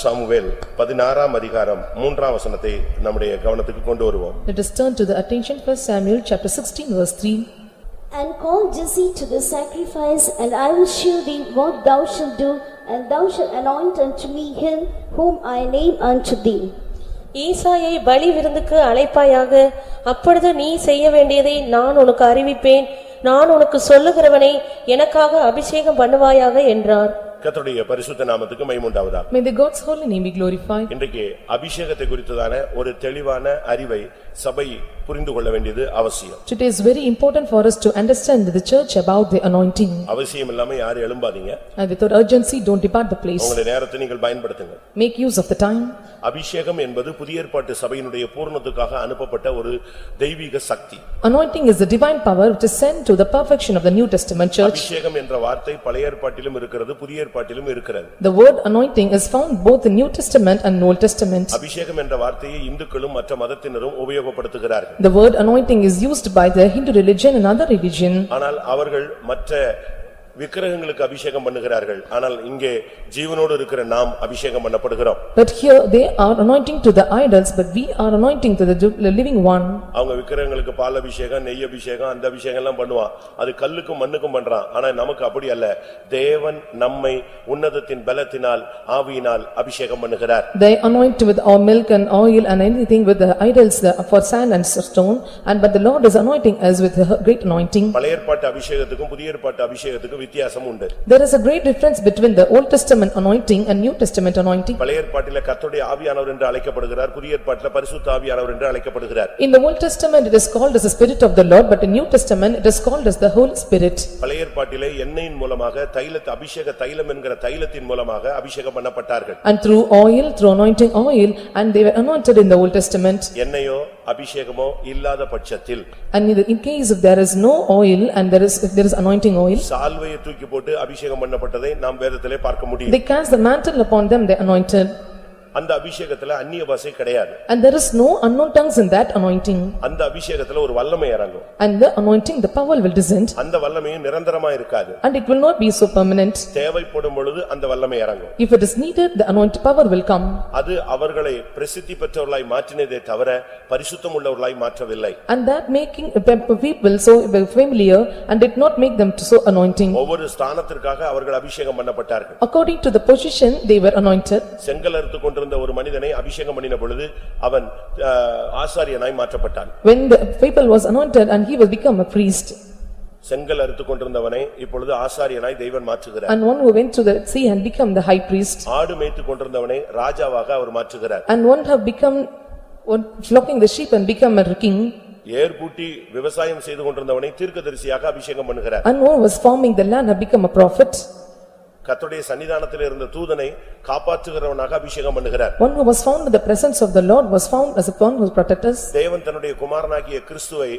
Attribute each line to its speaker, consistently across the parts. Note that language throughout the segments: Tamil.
Speaker 1: சாமுவேல் பதினாறாம் அதிகாரம் மூன்றாம் வசனத்தை நம்முடைய கவனத்துக்கு கொண்டு வருவோம்
Speaker 2: Let us turn to the attention for Samuel chapter 16 verse 3.
Speaker 3: And call Jesse to the sacrifice, and I will shew thee what thou shalt do, and thou shalt anoint unto me him whom I name unto thee.
Speaker 4: ஈசாயை பலி விருந்துக்கு அழைப்பாயாக அப்பொழுது நீ செய்ய வேண்டியதை நான் உனக்கு அறிவிப்பேன் நான் உனக்கு சொல்லுகிறவனை எனக்காக அபிஷேகம் பண்ணுவாயாக என்றார்
Speaker 1: கர்த்தருடைய பரிசுத்த நாமத்துக்கு மைமுண்டாவதா
Speaker 2: May the God's holy name be glorified.
Speaker 1: இன்றைக்கு அபிஷேகத்தை குறித்ததான ஒரு தெளிவான அறிவை சபை புரிந்து கொள்ள வேண்டியது அவசியம்
Speaker 2: Today is very important for us to understand the church about the anointing.
Speaker 1: அவசியம் இல்லாம யாரும் எழும்பாதீங்க
Speaker 2: And without urgency, don't depart the place.
Speaker 1: உங்களுடைய நேரத்தை நீங்கள் பயன்படுத்துங்க
Speaker 2: Make use of the time.
Speaker 1: அபிஷேகம் என்பது புதிய ஏற்பாட்டு சபையினுடைய பூரணத்துக்காக அனுப்பப்பட்ட ஒரு தெய்வீக சக்தி
Speaker 2: Anointing is the divine power which is sent to the perfection of the New Testament church.
Speaker 1: அபிஷேகம் என்ற வார்த்தை பழைய ஏற்பாட்டிலும் இருக்கிறது புதிய ஏற்பாட்டிலும் இருக்கிறது
Speaker 2: The word anointing is found both in New Testament and Old Testament.
Speaker 1: அபிஷேகம் என்ற வார்த்தையை இந்துக்களும் மற்ற மதத்தினரும் உபயோகப்படுத்துகிறார்கள்
Speaker 2: The word anointing is used by the Hindu religion and other religion.
Speaker 1: ஆனால் அவர்கள் மற்ற விக்கிரகங்களுக்கு அபிஷேகம் பண்ணுகிறார்கள் ஆனால் இங்கே ஜீவனோடு இருக்கிற நாம் அபிஷேகம் பண்ணப்படுகிறோம்
Speaker 2: But here they are anointing to the idols, but we are anointing to the du- the living one.
Speaker 1: அவங்க விக்கிரகங்களுக்கு பால் அபிஷேகம் நெய் அபிஷேகம் அந்த அபிஷேகம் எல்லாம் பண்ணுவான் அது கல்லுக்கும் மண்ணுக்கும் பண்றான் ஆனா நமக்கு அப்படி அல்ல தேவன் நம்மை உன்னதத்தின் பலத்தினால் ஆவியினால் அபிஷேகம் பண்ணுகிறார்
Speaker 2: They anoint with our milk and oil and anything with the idols the- for sand and stone. And but the Lord is anointing us with a great anointing.
Speaker 1: பழைய ஏற்பாட்டு அபிஷேகத்துக்கும் புதிய ஏற்பாட்டு அபிஷேகத்துக்கும் வித்தியாசம் உண்டு
Speaker 2: There is a great difference between the Old Testament anointing and New Testament anointing.
Speaker 1: பழைய ஏற்பாட்டில கர்த்தருடைய ஆவியானவர் என்று அழைக்கப்படுகிறார் புதிய ஏற்பாட்டில பரிசுத்த ஆவியானவர் என்று அழைக்கப்படுகிறார்
Speaker 2: In the Old Testament, it is called as the Spirit of the Lord, but in New Testament, it is called as the Holy Spirit.
Speaker 1: பழைய ஏற்பாட்டிலே எண்ணெயின் மூலமாக தைலத்தை அபிஷேக தைலம் என்கிற தைலத்தின் மூலமாக அபிஷேகம் பண்ணப்பட்டார்கள்
Speaker 2: And through oil, through anointing oil, and they were anointed in the Old Testament.
Speaker 1: எண்ணெயோ அபிஷேகமோ இல்லாத பட்சத்தில்
Speaker 2: And in the- in case if there is no oil and there is, if there is anointing oil,
Speaker 1: சால்வையை தூக்கி போட்டு அபிஷேகம் பண்ணப்பட்டதை நாம் வேதத்திலே பார்க்க முடியும்
Speaker 2: they cast the mantle upon them, they anointed.
Speaker 1: அந்த அபிஷேகத்துல அந்நிய பாஷை கிடையாது
Speaker 2: And there is no unknown tongues in that anointing.
Speaker 1: அந்த அபிஷேகத்துல ஒரு வல்லமை இறங்கும்
Speaker 2: And the anointing, the power will descend,
Speaker 1: அந்த வல்லமையும் நிரந்தரமா இருக்காது
Speaker 2: and it will not be so permanent.
Speaker 1: தேவைப்படும் பொழுது அந்த வல்லமை இறங்கும்
Speaker 2: If it is needed, the anointed power will come.
Speaker 1: அது அவர்களை பிரசித்தி பெற்றவர்களாய் மாற்றினதே தவிர பரிசுத்தம் உள்ளவர்களாய் மாற்றவில்லை
Speaker 2: And that making the people so familiar, and did not make them so anointing.
Speaker 1: ஒவ்வொரு ஸ்தானத்திற்காக அவர்கள் அபிஷேகம் பண்ணப்பட்டார்கள்
Speaker 2: According to the position, they were anointed.
Speaker 1: செங்கல் அறுத்து கொண்டிருந்த ஒரு மனிதனை அபிஷேகம் பண்ணின பொழுது அவன் ஆஹ், ஆசாரியனாய் மாற்றப்பட்டான்
Speaker 2: When the people was anointed, and he will become a priest.
Speaker 1: செங்கல் அறுத்து கொண்டிருந்தவனை இப்பொழுது ஆசாரியனாய் தெய்வன் மாற்றுகிறார்
Speaker 2: And one who went to the sea and become the high priest.
Speaker 1: ஆடு மேய்த்து கொண்டிருந்தவனை ராஜாவாக அவர் மாற்றுகிறார்
Speaker 2: And one have become, one flocking the sheep and become a king.
Speaker 1: ஏர்பூட்டி விவசாயம் செய்து கொண்டிருந்தவனை தீர்க்கதரிசியாக அபிஷேகம் பண்ணுகிறார்
Speaker 2: And one was farming the land have become a prophet.
Speaker 1: கர்த்தருடைய சன்னிதானத்தில் இருந்த தூதனை காப்பாற்றுகிறவனாக அபிஷேகம் பண்ணுகிறார்
Speaker 2: One who was found in the presence of the Lord was found as a one who protects us.
Speaker 1: தேவன் தன்னுடைய குமாரனாகிய கிறிஸ்துவை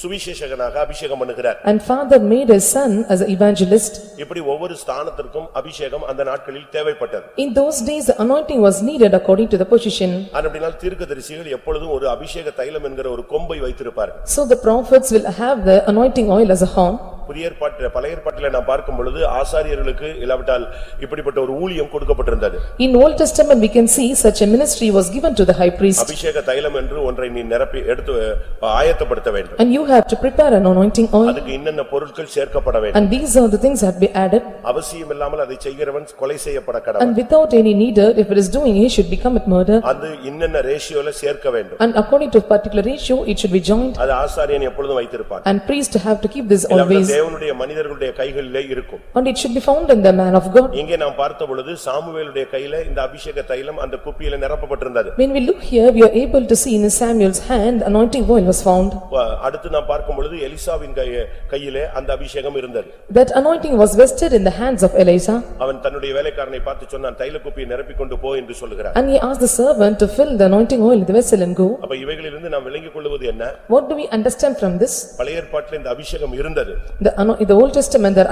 Speaker 1: சுவிசேஷகனாக அபிஷேகம் பண்ணுகிறார்
Speaker 2: And father made his son as an evangelist.
Speaker 1: இப்படி ஒவ்வொரு ஸ்தானத்திற்கும் அபிஷேகம் அந்த நாட்களில் தேவைப்பட்டது
Speaker 2: In those days, the anointing was needed according to the position.
Speaker 1: அப்படினால் தீர்க்கதரிசிகள் எப்பொழுதும் ஒரு அபிஷேக தைலம் என்கிற ஒரு கொம்பை வைத்திருப்பார்கள்
Speaker 2: So the prophets will have the anointing oil as a horn.
Speaker 1: புதிய ஏற்பாட்டு பழைய ஏற்பாட்டில நான் பார்க்கும் பொழுது ஆசாரியர்களுக்கு இல்லாவிட்டால் இப்படிப்பட்ட ஒரு ஊழியம் கொடுக்கப்பட்டிருந்தது
Speaker 2: In Old Testament, we can see such a ministry was given to the high priest.
Speaker 1: அபிஷேக தைலம் என்று ஒன்றை நீ நிரப்பி எடுத்து அஹ், ஆயத்தப்படுத்த வேண்டும்
Speaker 2: And you have to prepare an anointing oil
Speaker 1: அதுக்கு என்னென்ன பொருட்கள் சேர்க்கப்பட வேண்டும்
Speaker 2: and these are the things that be added.
Speaker 1: அவசியம் இல்லாமல் அதை செய்கிறவன் கொலை செய்யப்பட கடவன்
Speaker 2: And without any needer, if it is doing, he should become a murder.
Speaker 1: அது இன்னென்ன ரேஷியோல சேர்க்க வேண்டும்
Speaker 2: And according to particular ratio, it should be joined
Speaker 1: அது ஆசாரியன் எப்பொழுதும் வைத்திருப்பான்
Speaker 2: and priest have to keep this
Speaker 1: இல்லாவிட்டால்
Speaker 2: always.
Speaker 1: தேவனுடைய மனிதர்களுடைய கைகளிலே இருக்கும்
Speaker 2: And it should be found in the man of God.
Speaker 1: இங்கே நாம் பார்த்த பொழுது சாமுவேலுடைய கையில இந்த அபிஷேக தைலம் அந்த குப்பியில நிரப்பப்பட்டிருந்தது
Speaker 2: When we look here, we are able to see in Samuel's hand, anointing oil was found.
Speaker 1: வ- அடுத்து நாம் பார்க்கும் பொழுது எலிசாவின் கைய- கையிலே அந்த அபிஷேகம் இருந்தது
Speaker 2: That anointing was vested in the hands of Eliza.
Speaker 1: அவன் தன்னுடைய வேலைக்காரனை பார்த்து சொன்னான் தைல குப்பியை நிரப்பிக் கொண்டு போ என்று சொல்லுகிறான்
Speaker 2: And he asked the servant to fill the anointing oil in the vessel and go.
Speaker 1: அப்ப இவைகளிலிருந்து நாம் விளங்கிக் கொள்வது என்ன
Speaker 2: What do we understand from this?
Speaker 1: பழைய ஏற்பாட்டில் இந்த அபிஷேகம் இருந்தது
Speaker 2: The ano- in the Old Testament, there